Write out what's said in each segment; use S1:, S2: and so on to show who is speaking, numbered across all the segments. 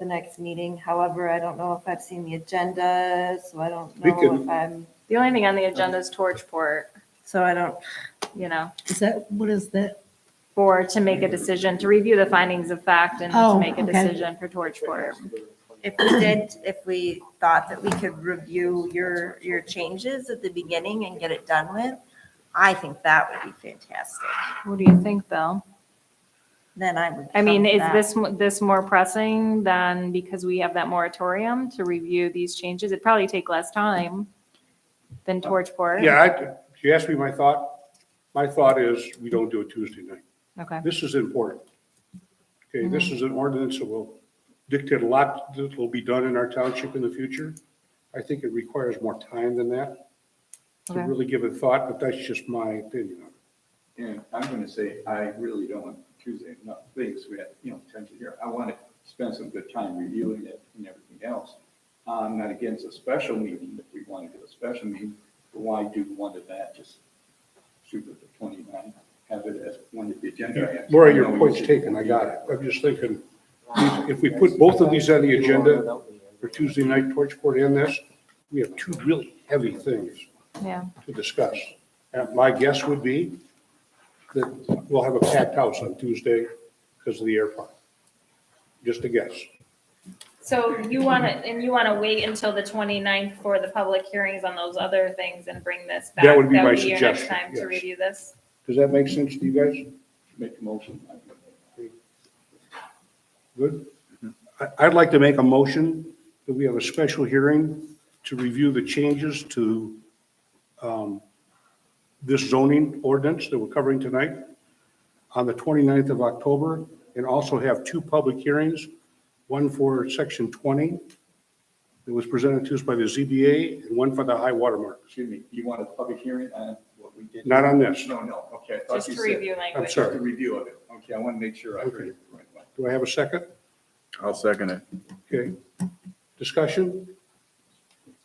S1: the next meeting. However, I don't know if I've seen the agenda, so I don't
S2: We
S1: know
S2: can-
S1: if I'm,
S3: The only thing on the agenda is Torchport,
S1: so I don't,
S3: you know,
S4: Is that, what is that?
S3: for, to make a decision, to review the findings of fact and to
S4: Oh,
S3: make a
S4: okay.
S3: decision for Torchport.
S1: if we did, if we thought that we could review your, your changes at the beginning and get it done with, I think that would be fantastic.
S3: What do you think, Bill?
S1: Then I would.
S3: I mean,
S1: come
S3: is
S1: back.
S3: this, mo- this more pressing than because we have that moratorium to review these changes? It'd probably take less time than Torchport.
S2: Yeah, I, you asked me my thought. My thought is we don't do it Tuesday night.
S3: Okay,
S2: This is important. Okay, this is an ordinance that will dictate a lot that will be done in our township in the future. I think it requires more time than that to
S3: Okay.
S2: really give it thought, but that's just my opinion.
S5: And I'm gonna say, I really don't want Tuesday, no, please, we have, you know, attention here. I wanna spend some good time reviewing it and everything else. I'm not against a special meeting, if we wanna do a special meeting, but why do one of that, just shoot with the twenty-nine, have it as one of the agenda items.
S2: Laura, your
S5: No,
S2: point's
S5: you-
S2: taken, I got it. I'm just thinking, if we put both of these on the agenda for Tuesday night, Torchport and this, we have two really heavy things
S3: yeah.
S2: to discuss. And my guess would be that we'll have a packed house on Tuesday because of the airport. Just a guess.
S6: So you want to, and you want to wait until the 29th for the public hearings on those other things and bring this back?
S2: That would be my
S6: your next
S2: suggestion,
S6: time To
S2: yes.
S6: review this?
S2: Does that make sense to you guys?
S5: Make a motion. I think.
S2: Good? I- I'd like to make a motion that we have a special hearing to review the changes to um, this zoning ordinance that we're covering tonight on the 29th of October, and also have two public hearings, one for Section 20 that was presented to us by the ZBA, and one for the high water mark.
S5: Excuse me, you want a public hearing on what we did?
S2: Not on this.
S5: No, no, okay. I thought
S6: Just
S5: you
S6: to
S5: said-
S6: review
S2: I'm
S6: language?
S5: Just a
S2: sorry.
S5: review of it. Okay, I wanna make sure I heard it the right way.
S2: Do I have a second?
S7: I'll second it.
S2: Okay. Discussion?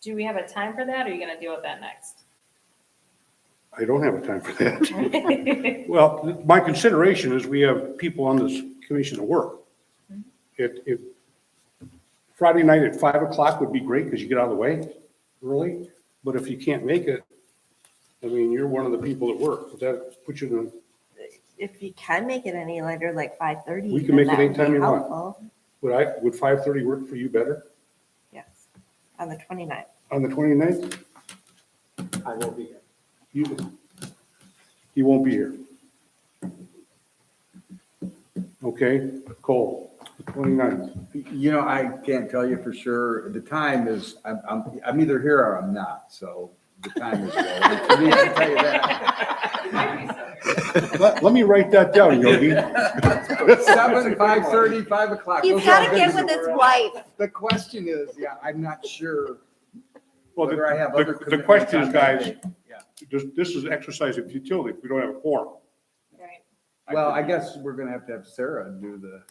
S6: Do we have a time for that or are you going to deal with that next?
S2: I don't have a time for that. Well, my consideration is we have people on this commission that work. It, it, Friday night at five o'clock would be great because you get out of the way early, but if you can't make it, I mean, you're one of the people that work. Does that put you in,
S1: If you can make it any later, like five thirty.
S2: We can make it anytime you want. would I, would five thirty work for you better
S1: Yes, on the 29th.
S2: on the 29th?
S8: I will be here.
S2: You, you won't be here. Okay, Cole, the 29th.
S7: You know, I can't tell you for sure. The time is, I'm, I'm, I'm either here or I'm not, so the time is. relevant to me, I can tell you that.
S2: Let, let me write that down, Yogi.
S7: Seven, five thirty, five o'clock.
S1: He's
S7: those are all
S1: got to get
S7: good.
S1: with his wife.
S7: The question is, yeah, I'm not sure
S2: Well,
S7: whether I have
S2: the-
S7: other
S2: the- The
S7: commitments
S2: question
S7: on
S2: is,
S7: that
S2: guys,
S7: day.
S2: this, this is exercise of futility if we don't have a quorum.
S6: Right,
S7: Well, I guess we're gonna have to have Sarah do the,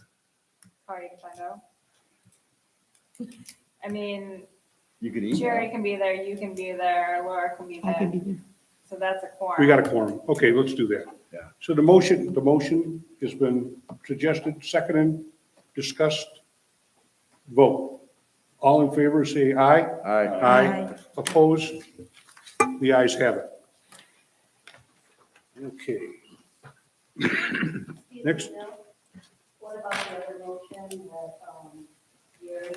S6: Party to find out. I mean,
S7: you could
S6: Jerry
S7: email.
S6: can be there, you can be there, Laura can be
S4: I can
S6: there.
S4: be there.
S6: So that's a quorum.
S2: We got a quorum. Okay, let's do that.
S7: Yeah.
S2: So the motion, the motion has been suggested, seconded, discussed, vote. All in favor, say aye.
S7: Aye.
S2: Aye. Opposed? The ayes have it. Okay. Next.
S9: What about the other motion that, um, Gary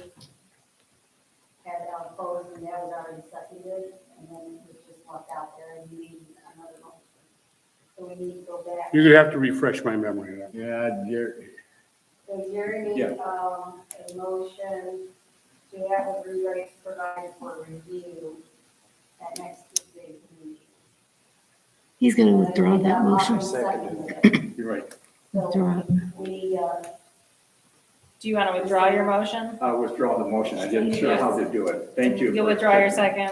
S9: had uh, opposed and that was already seconded, and then it was just left out there and you need another motion? So we need to go back,
S2: You're gonna have to refresh my memory. on that.
S7: Yeah, Jerry,
S9: so Gary
S5: Yeah.
S9: needs, um, a motion to have a rewrite provided for review at next Tuesday's meeting.
S4: He's going to withdraw that motion.
S9: Seconded.
S5: You're right.
S9: So
S4: Withdraw it.
S9: we, uh,
S6: Do you want to withdraw your motion?
S5: I withdraw the motion. I didn't sure how to do it. Thank you.
S6: You'll
S5: for-
S6: withdraw your second.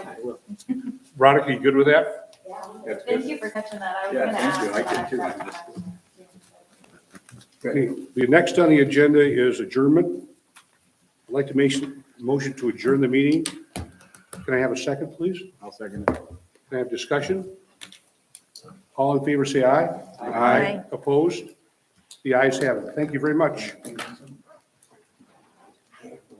S2: Veronica, you good with that?
S9: yeah. I'm good.
S5: That's good.
S6: Thank you for catching that. I was
S5: Yeah,
S6: going to
S5: thank you.
S6: ask.
S5: I did too. I just-
S2: Okay, The next on the agenda is adjournment. I'd like to make a motion to adjourn the meeting. Can I have a second, please?
S7: I'll second it.
S2: Can I have discussion? All in favor, say aye. Aye. Opposed? The ayes have it. Thank you very much.